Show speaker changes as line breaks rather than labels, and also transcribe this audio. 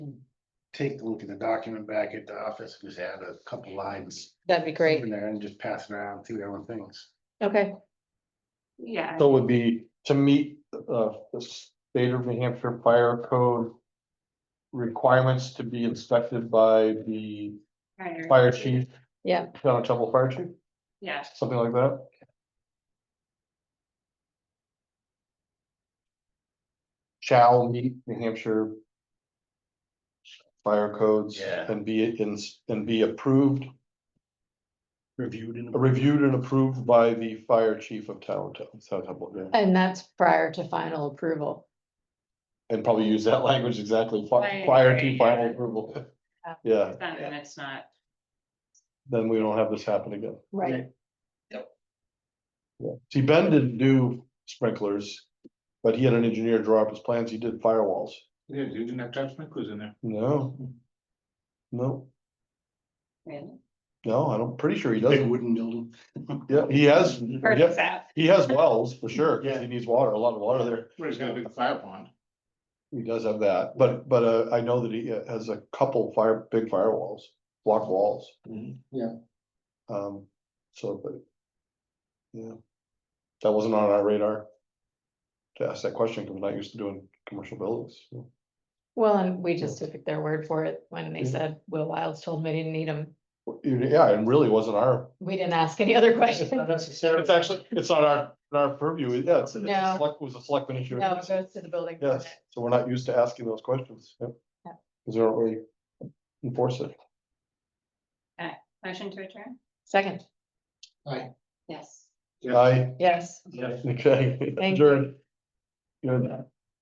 take a look at the document back at the office, and just add a couple lines.
That'd be great.
In there and just pass it around, see what everyone thinks.
Okay,
Yeah,
So it would be to meet uh the state of New Hampshire fire code. Requirements to be inspected by the
prior.
fire chief,
yeah,
town of Trumbull Fire Chief,
Yeah,
something like that. Shall meet New Hampshire. Fire codes
Yeah.
and be in and be approved,
Reviewed and
reviewed and approved by the fire chief of town, town Trumbull, yeah.
and that's prior to final approval.
And probably use that language exactly, fi-
Right,
prior
right,
to final
yeah.
approval.
Yeah.
Yeah,
then when it's not,
then we don't have this happen again.
Right.
Yeah. See, Ben didn't do sprinklers, but he had an engineer draw up his plans, he did firewalls.
Yeah, you didn't have touch sprinklers in there.
No. No,
really.
no, I'm pretty sure he
Big
doesn't.
wooden building.
Yeah, he has,
Or
Yep.
it's out.
he has wells for sure, because
Yeah.
he needs water, a lot of water there.
Where's gonna be the fire pond?
He does have that, but, but uh, I know that he has a couple fire, big firewalls, block walls.
Mm-hmm, Yeah.
Um, so, but. Yeah. That wasn't on our radar. To ask that question, because we're not used to doing commercial buildings. so.
Well, and we just took their word for it when they
Yeah.
said Will Wilds told me didn't need them.
Yeah, and really wasn't our,
We didn't ask any other questions. No,
it's actually, it's not our, not our purview, yeah, it's, it's
No.
a select, was a selectman issue.
it goes to the building.
Yes,
permit.
so we're not used to asking those questions. Yep.
Yeah.
Because they don't really enforce it.
Motion to adjourn?
Second,
Yes.
Yeah.
I,
yes.
okay,
Thank
adjourned. Good.